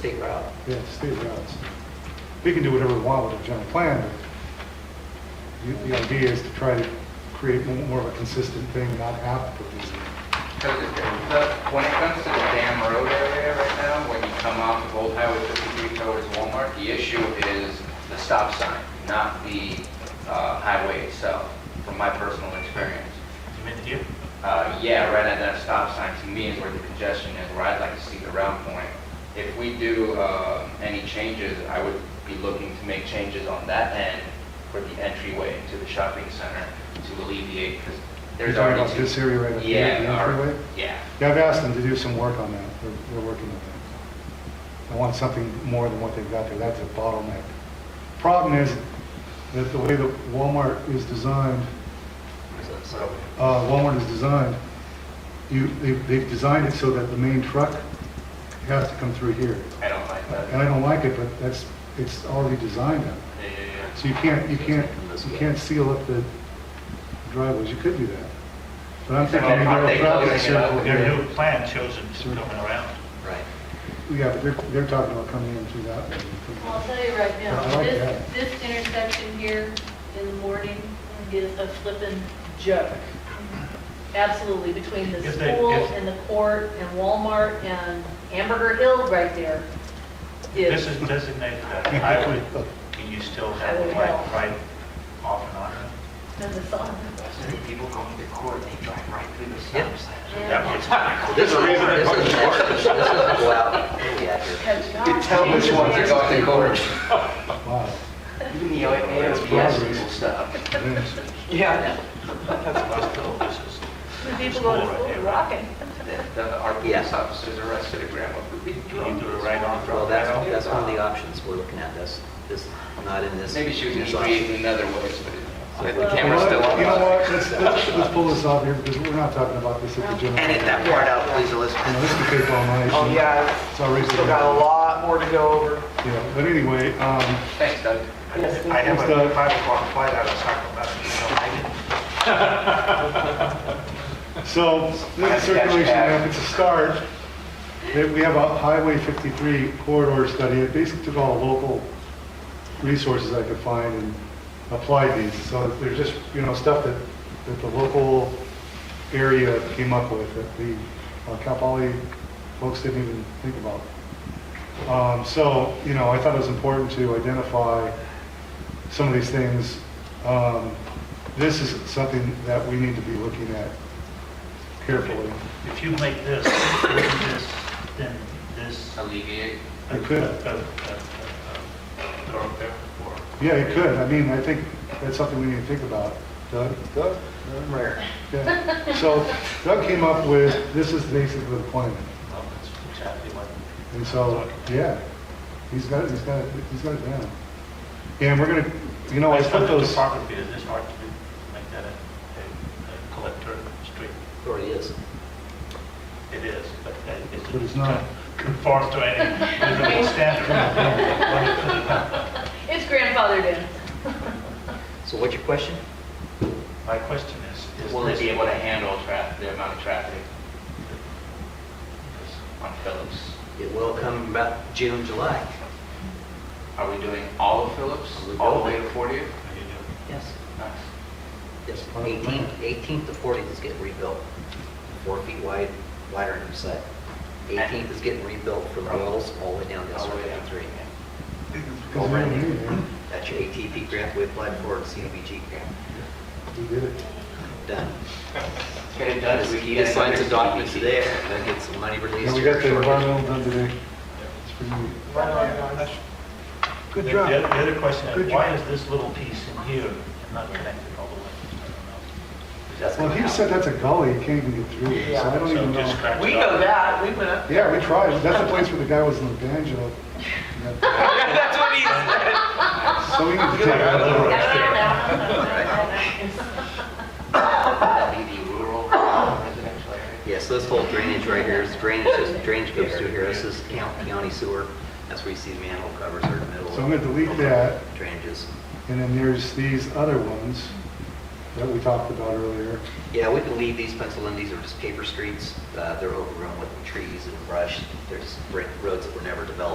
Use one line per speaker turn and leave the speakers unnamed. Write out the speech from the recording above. state route.
Yeah, it's state routes. We can do whatever we want with the general plan, but you- the idea is to try to create mo- more of a consistent thing, and not have to put these in.
Because it- the- when it comes to the Dam Road area right now, when you come off of Old Highway 53 towards Walmart, the issue is the stop sign, not the uh, highway itself, from my personal experience.
You mean here?
Uh, Yeah, right at that stop sign, to me, is where the congestion is, where I'd like to see the round point. If we do uh, any changes, I would be looking to make changes on that end for the entryway into the shopping center to alleviate, because
You're
there's
talking
already
about
two...
this area right up here, the
Yeah, our-
entryway?
Yeah.
Yeah, I've asked them to do some work on that, they're, they're working on that. I want something more than what they've got there, that's a bottleneck. Problem is, that the way that Walmart is designed,
So,
uh, Walmart is designed, you, they've, they've designed it so that the main truck has to come through here.
I don't like that.
And I don't like it, but that's, it's already designed that.
Yeah, yeah, yeah.
So you can't, you can't, you can't seal up the driveways, you could do that. But I'm thinking maybe
Aren't
a
they
traffic
closing it up?
circle
Their
here.
new plan shows them just coming around.
right.
Yeah, but they're, they're talking about coming in through that.
Well, I'll
way.
tell you right
I
now,
like
this,
that.
this intersection here in the morning is a flippin' joke. Absolutely, between the
If they-
school
if-
and the court and Walmart and Hamburger Hill right there
This
is,
is designated as a highway, can you still have a light right off and on? it?
and the sun.
People going to court, they drive right through the
stop
sign.
That
And-
one's not cool.
This is, this is, this is well, yeah,
Because God,
You tell which ones are going to court.
Wow.
Even the OMA,
progress.
people stop.
Yes.
Yeah.
That's cool. This is-
when people go to school, they're rocking.
The- the- Our police officers arrested a grandma for being
Can you
drunk.
do it right on?
Well, that's, that's one of the options we're looking at, that's, this, not in this.
Maybe she was
this
just
option.
reading another way, but the
Well-
You know
camera's still
what?
on.
You know what, let's, let's let's pull this off here, because we're not talking about this at the general.
Edit that part out, please, Elizabeth.
You know, this could take all night.
Oh, yeah,
It's already.
still got a lot more to go over.
Yeah, but anyway, um,
Thanks, Doug.
I have a five o'clock flight out of Sacramento, so I didn't.
So, this circulation map, it's a start. They- We have a Highway 53 corridor study. It basically took all the local resources I could find and applied these. So there's just, you know, stuff that, that the local area came up with that the uh, Cal Poly folks didn't even think about. Um, So, you know, I thought it was important to identify some of these things. Um, This is something that we need to be looking at carefully.
If you make this, this, then this. uh,
Alleviate.
a-
It could.
a- a- a- a Thoroughfare for.
Yeah, it could. I mean, I think that's something we need to think about. Doug? Doug?
I'm rare.
Yeah. So Doug came up with, this is basically the plan.
Well, that's exactly what.
And so, yeah, he's got it, he's got it, he's got it down. And we're gonna, you know, I
That's what
put
the
those,
Department is, it's hard to make that a, a a collector street.
It already is.
It is, but uh, it- it
But it's not.
conform to any living standard.
It's grandfathered in.
So what's your question?
My question is, is
Will they
this,
be able to handle traffic, the amount of traffic
is-
on Phillips?
It will come about June, July.
Are we doing all of Phillips,
Are we
all the way
going?
to 40th?
how do you do?
Yes.
Nice.
Yes, 18th, 18th to 40th is getting rebuilt, four feet wide, wider on each side. 18th is getting rebuilt from Wells all the way down to
All the way down.
53.
because we don't need it.
That's your ATP grant we applied for, and CDBG grant,
We did it.
done.
Get it done, we can
He
get
just signs
another
a document
50.
today, and then get some money released.
And we got
here
the
shortly.
environmental done today. It's pretty neat.
Right on, guys.
Good
The-
job.
The the other question
Good
is,
job.
why is this little piece in here not connected all the way? I don't know.
Well, he said that's a gully, you can't even get through it, so I don't
So
even
just
know.
scratch it
We
off.
know that, we went up.
Yeah, we tried. That's the place where the guy was in the banjo. Yeah.
That's what he said.
So we need to take that
All
out.
right.
LED rural residential area.
Yeah, so this whole drainage right here is drainage, this drainage goes through here, this is count- county sewer, that's where you see the manhole covers are in the middle.
So I'm gonna
of
delete that.
Drainages.
And then there's these other ones that we talked about earlier.
Yeah, we can leave these pencil in, these are just paper streets, uh, they're overgrown with trees and brush, there's brick roads that were never developed.